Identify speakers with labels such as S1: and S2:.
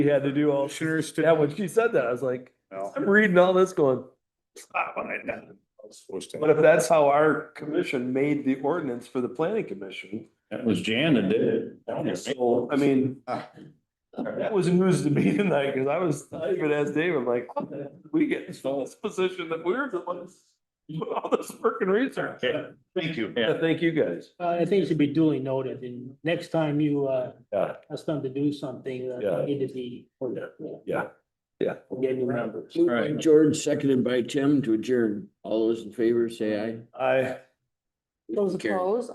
S1: we had to do all,
S2: Commissioners
S1: yeah,
S2: to.
S1: when she said that, I was like,
S2: Well,
S1: I'm reading all this going,
S2: it's not what I done. I was supposed to-
S1: but if that's how our commission made the ordinance for the planning commission.
S3: That was Jan that did it.
S1: So, I mean, that was news to me tonight, cause I was, I even asked Dave, I'm like, how the heck did we get in this position that we we're the ones. Put all this work and research.
S3: Yeah.
S2: Thank you.
S3: Yeah.
S1: Yeah, thank you guys.
S4: Uh, I think it should be duly noted, and next time you, uh,
S1: Yeah.
S4: ask them to do something,
S1: Yeah.
S4: uh, need to be.
S1: Yeah. Yeah.
S4: Get your numbers.
S5: Moved by
S3: Right.
S5: George, seconded by Tim to adjourn. All those in favor, say aye.
S1: I.
S6: Those
S5: Carried.
S6: opposed?